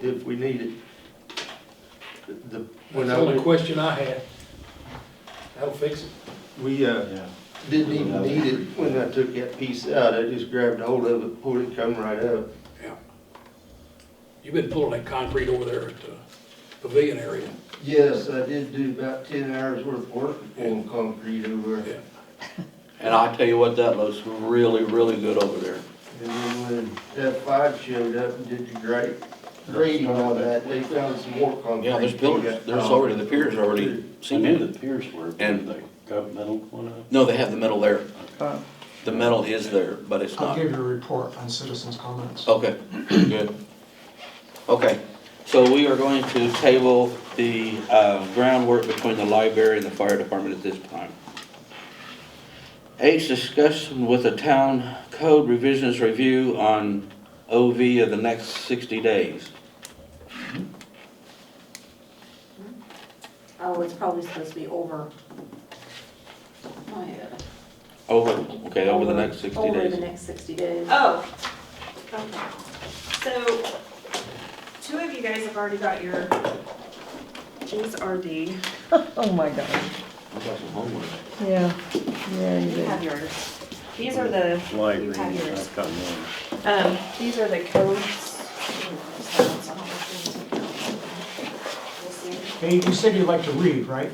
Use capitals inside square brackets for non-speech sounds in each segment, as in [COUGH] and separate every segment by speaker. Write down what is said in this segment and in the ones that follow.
Speaker 1: if we need it. The, the-
Speaker 2: That's
Speaker 1: when
Speaker 2: the
Speaker 1: I,
Speaker 2: only
Speaker 1: went-
Speaker 2: question I had. That'll fix it.
Speaker 1: we, uh,
Speaker 3: Yeah.
Speaker 1: didn't even need it when I took that piece out, I just grabbed hold of it, pulled it, come right up.
Speaker 4: Yeah. You've been pulling that concrete over there at the pavilion area.
Speaker 1: Yes, I did do about ten hours worth of work of pulling concrete over.
Speaker 4: Yeah.
Speaker 3: And I tell you what, that looks really, really good over there.
Speaker 1: And then when that five showed up and did the grate, grading on that, they found some more concrete.
Speaker 3: Yeah, there's pillars, there's already, the piers already
Speaker 5: I knew
Speaker 3: cemented.
Speaker 5: the piers were, but
Speaker 3: And-
Speaker 5: they got metal one up.
Speaker 3: No, they have the metal there.
Speaker 6: Uh,
Speaker 3: The metal is there, but it's
Speaker 7: I'll
Speaker 3: not.
Speaker 7: give you a report on citizens' comments.
Speaker 3: Okay, good. Okay, so we are going to table the uh, groundwork between the library and the fire department at this time. Eight's discussion with the town code revisions review on OV of the next sixty days.
Speaker 8: Oh, it's probably supposed to be over.
Speaker 9: Oh,
Speaker 8: my, uh,
Speaker 3: Over, okay, over the next sixty
Speaker 8: Over the
Speaker 3: days.
Speaker 8: next sixty days.
Speaker 9: Oh, okay. So, two of you guys have already got your, these are the,
Speaker 6: [LAUGHS] Oh, my God.
Speaker 3: I've got some homework.
Speaker 6: Yeah, yeah, you
Speaker 9: you
Speaker 6: did.
Speaker 9: have yours. These are the,
Speaker 5: Light
Speaker 9: you
Speaker 5: green,
Speaker 9: have yours.
Speaker 5: I've got one.
Speaker 9: Um, these are the codes. We'll see.
Speaker 7: Hey, you said you'd like to read, right?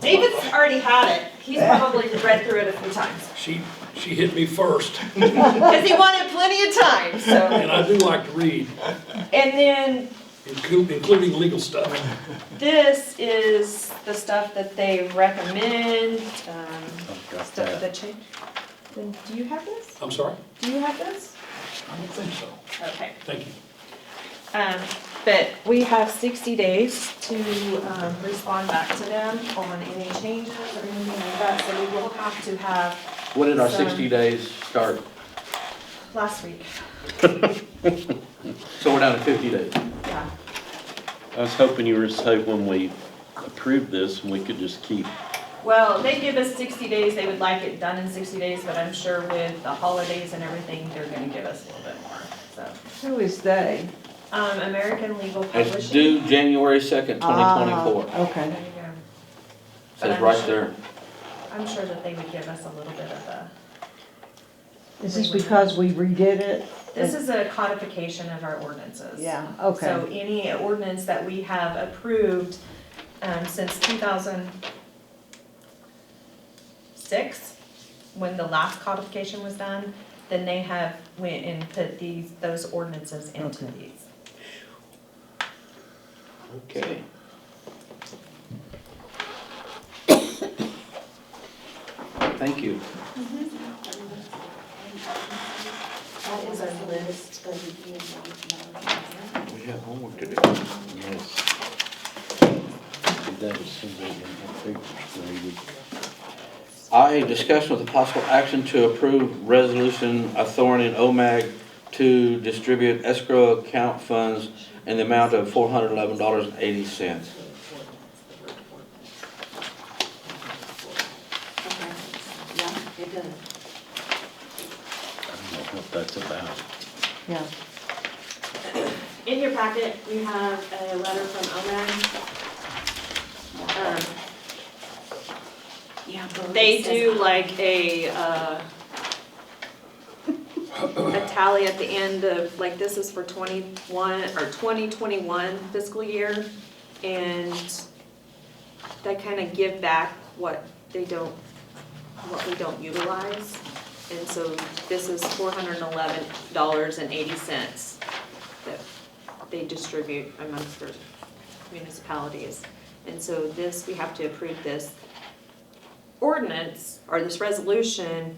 Speaker 9: David's already had it. He's probably read through it a few times.
Speaker 4: She, she hit me first,
Speaker 9: Because he wanted plenty of time, so.
Speaker 4: and I do like to read,
Speaker 9: And then
Speaker 4: inclu- including legal stuff.
Speaker 9: this is the stuff that they recommend, um,
Speaker 5: I've got
Speaker 9: stuff
Speaker 5: that.
Speaker 9: that change. Then, do you have this?
Speaker 4: I'm sorry?
Speaker 9: Do you have this?
Speaker 4: I don't think so.
Speaker 9: Okay.
Speaker 4: Thank you.
Speaker 9: Um, but we have sixty days to, um, respond back to them on any changes or anything like that, so we will have to have
Speaker 3: When did our
Speaker 9: Some-
Speaker 3: sixty days start?
Speaker 9: last week,
Speaker 3: So we're down to fifty days.
Speaker 9: yeah.
Speaker 5: I was hoping you were just hoping we approved this and we could just keep
Speaker 9: Well, they give us sixty days, they would like it done in sixty days, but I'm sure with the holidays and everything, they're gonna give us a little bit more, so.
Speaker 6: Who is they?
Speaker 9: Um, American Legal Publishing.
Speaker 3: It's due January second, twenty twenty-four.
Speaker 6: Ah,
Speaker 9: There
Speaker 6: Okay.
Speaker 9: you go. But
Speaker 3: Says
Speaker 9: I'm
Speaker 3: right
Speaker 9: sure-
Speaker 3: there.
Speaker 9: I'm sure that they would give us a little bit of a,
Speaker 6: Is this because we redid it?
Speaker 9: this is a codification of our ordinances.
Speaker 6: Yeah, okay.
Speaker 9: So any ordinance that we have approved, um, since two thousand six, when the last codification was done, then they have went and put these, those ordinances into
Speaker 6: Okay.
Speaker 9: these.
Speaker 3: Okay. Thank you.
Speaker 8: That is our list, but we need one more.
Speaker 3: We have homework to do.
Speaker 5: Yes. That was somebody in the papers, maybe.
Speaker 3: I, discussion with the possible action to approve resolution authority in OMAG to distribute escrow account funds in the amount of four hundred eleven dollars and eighty cents.
Speaker 8: Okay, yeah, it does.
Speaker 5: I don't know what that's about.
Speaker 6: Yeah.
Speaker 9: In your packet, you have a letter from OMAG. Um,
Speaker 8: Yeah, but
Speaker 9: They
Speaker 8: it says-
Speaker 9: do like a, uh, a tally at the end of, like, this is for twenty-one, or twenty-twenty-one fiscal year, and they kind of give back what they don't, what we don't utilize. And so this is four hundred and eleven dollars and eighty cents that they distribute amongst their municipalities. And so this, we have to approve this ordinance or this resolution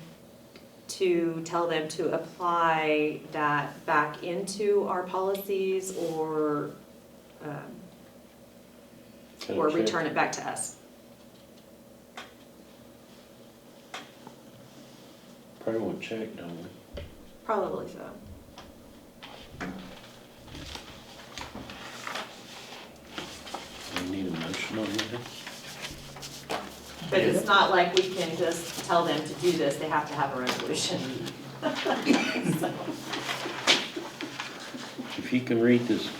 Speaker 9: to tell them to apply that back into our policies or, um, or return it back to us.
Speaker 5: Probably won't check, don't we?
Speaker 9: Probably so.
Speaker 5: We need a motion on that?
Speaker 9: But it's not like we can just tell them to do this, they have to have a resolution. [LAUGHS]
Speaker 5: If you can read this